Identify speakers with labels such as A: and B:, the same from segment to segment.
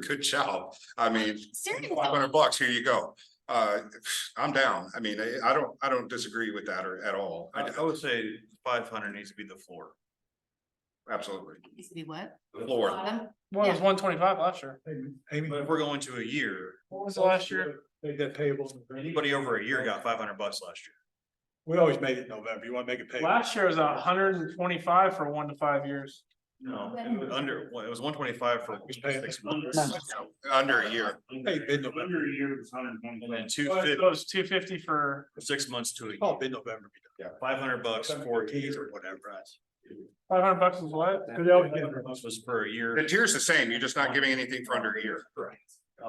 A: good job. I mean,
B: Seriously.
A: five hundred bucks, here you go. Uh, I'm down. I mean, I, I don't, I don't disagree with that or at all.
C: I, I would say five hundred needs to be the floor.
A: Absolutely.
B: Needs to be what?
A: Floor.
B: Bottom?
D: One was
B: Yeah.
D: one twenty-five last year.
E: Amy,
C: But if we're going to a year,
D: What was the last year?
E: Make that payable.
C: anybody over a year got five hundred bucks last year.
E: We always made it November. You wanna make it payable?
D: Last year was a hundred and twenty-five for one to five years.
C: No, it was under, well, it was one twenty-five for
E: Just pay it.
C: six months.
A: Under a year.
E: Hey, mid-November.
C: And then two
D: Oh, So It
C: fifty,
D: was two fifty for,
C: six months to a
E: Oh,
C: year,
E: mid-November.
C: five hundred bucks for a year or whatever.
D: five hundred bucks is what?
E: Cause they always get it.
C: This was per
A: The
C: year.
A: tier's the same. You're just not giving anything for under a year.
E: Oh,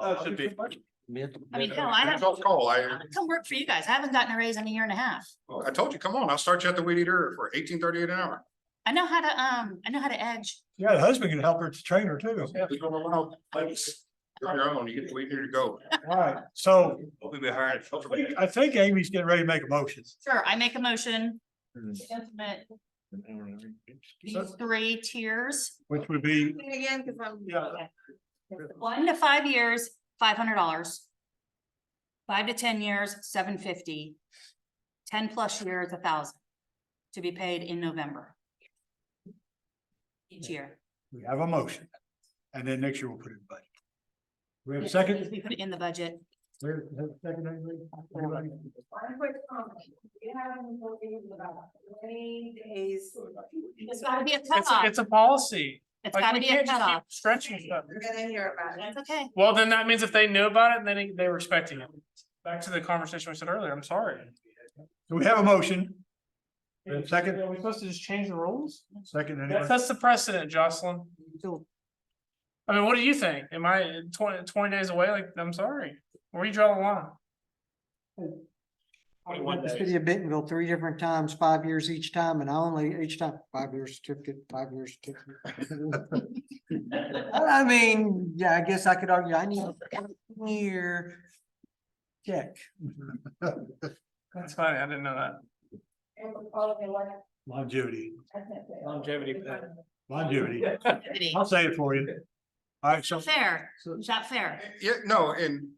C: Uh, should be-
B: I mean, hell, I
A: That's
B: haven't.
A: all call. I,
B: Come work for you guys. I haven't gotten a raise in a year and a half.
A: I told you, come on, I'll start you at the weed eater for eighteen thirty-eight an hour.
B: I know how to, um, I know how to edge.
E: Yeah, the husband can help her to train her too.
A: We don't allow plates. You're on your own. You get the weed eater to go.
E: Alright, so
C: We'll be hiring. a filter man.
E: I think Amy's getting ready to make a motion.
B: Sure, I make a motion. to implement
E: So-
B: These three tiers,
E: Which would be,
F: Again, because I'm.
D: Yeah.
B: one to five years, five hundred dollars. Five to ten years, seven fifty. Ten plus years, a thousand. To be paid in November. Each year.
E: we have a motion. And then next year we'll put it in budget. We have a
B: Yes,
E: second?
B: We put it in the budget.
E: We have a second, anybody? Anybody?
F: One quick comment. You have them looking in about twenty days.
B: It's gotta be a
D: It's,
B: cutoff.
D: it's a policy.
B: It's
D: Like,
B: gotta
D: we
B: be a
D: can't just keep
B: cutoff.
D: Stretching stuff.
F: You're gonna hear about it.
B: That's okay.
D: Well, then that means if they knew about it, then they- they were expecting it. Back to the conversation we said earlier, I'm sorry.
E: So we have a motion, We have a second?
D: Are we supposed to just change the rules?
E: second,
D: That
E: anybody?
D: sets the precedent, Jocelyn. I mean, what do you think? Am I 20 20 days away? Like, I'm sorry. Where you draw the line?
G: The city of Bentonville three different times, five years each time, and I only each time, five years certificate, five years certificate. I I mean, yeah, I guess I could argue, I need a year check.
D: That's funny. I didn't know that.
F: And we'll follow the one.
E: Longevity,
F: that's it.
D: Longevity.
E: longevity. I'll say it for you. Alright, so.
B: Fair. Is that fair?
A: Yeah, no, and,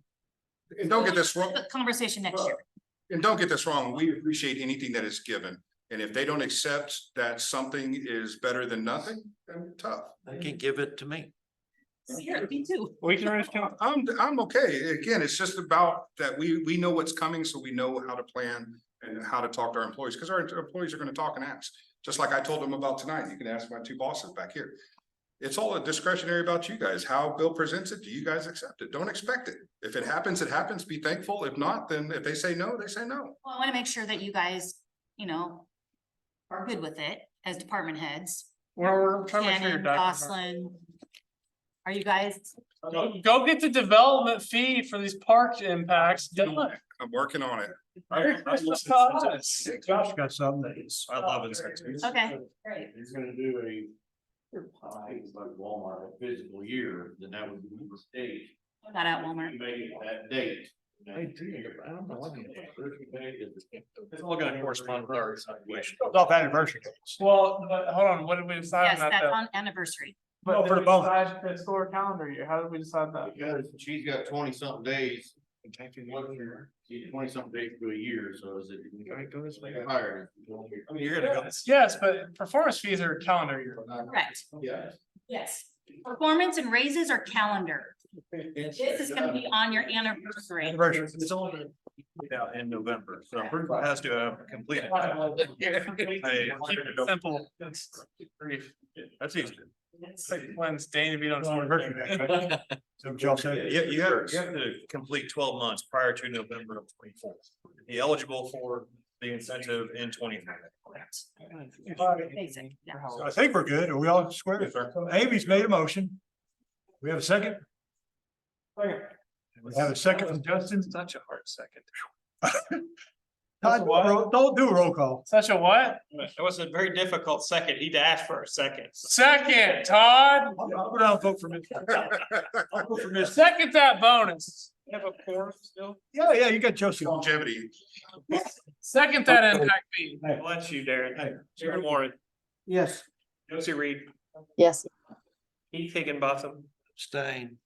A: and don't get this wrong.
B: The Conversation next year.
A: And don't get this wrong, we appreciate anything that is given. And if they don't accept that something is better than nothing, then tough.
H: They can give it to me.
B: Here, me too.
D: We can raise count.
A: I'm, I'm okay. Again, it's just about that we, we know what's coming, so we know how to plan and how to talk to our employees, because our employees are gonna talk and ask. Just like I told them about tonight, you can ask my two bosses back here. It's all discretionary about you guys, how Bill presents it, do you guys accept it? Don't expect it. If it happens, it happens, be thankful. If not, then if they say no, they say no.
B: Well, I want to make sure that you guys, you know, are good with it as department heads.
D: We're, we're trying to make sure your
B: Shannon,
D: documents are-
B: Jocelyn. Are you guys,
D: Go- Go get the development fee for these park impacts done.
A: I'm working on it.
C: I- I love
D: Us.
E: Josh got something.
C: incentives. I love incentives.
B: okay,
F: Great.
H: He's gonna do a, I think it's like Walmart, a physical year, then that would be a mistake.
B: not at Walmart.
H: You Make it that date.
C: It's all gonna correspond with our evaluation.
E: It's Off anniversary.
D: Well, but hold on, what did we decide
B: Yes,
D: on that
B: that's
D: though?
B: on anniversary.
D: But
E: for
D: did we
E: the bonus.
D: decide the school calendar year? How did we decide that?
H: Because she's got twenty something days. She's twenty something days to a year, so is it? Hired.
C: I mean, you're gonna go.
D: Yes, but performance fees are calendar year.
B: Oh, Correct.
H: Yeah.
B: Yes. Performance and raises are calendar.
H: This
B: This is gonna be on your anniversary.
E: Anniversary.
C: It's only out in November, so it has to uh, have completed. Hey,
D: Keep it simple. It's brief.
C: That's easy.
D: It's like when's Dana beat on
E: It's
D: his anniversary?
E: anniversary. So Josh said.
C: Yeah, you have, you have to complete twelve months prior to November of twenty-four. Be eligible for the incentive in twenty-five.
B: Basic, yeah.
E: So I think we're good. Are we all square?
A: Yes, sir.
E: So Amy's made a motion. We have a second? We have a second from Justin.
D: Such a hard second.
E: Todd, ro- Don't do a roll call.
D: Such a what?
I: It was a very difficult second. He'd asked for a second.
D: Second, Todd.
E: I'll I'll go down and vote for Mitch. I'll vote for Mitch.
D: Second that bonus.
E: Yeah, yeah, you got Joseph.
A: Longevity,
D: Second that impact fee.
I: Bless you, Darren.
E: Hey.
I: Darren Warren,
G: Yes.
I: Josie Reed,
F: Yes.
I: Keith Higginbotham,
H: Stain.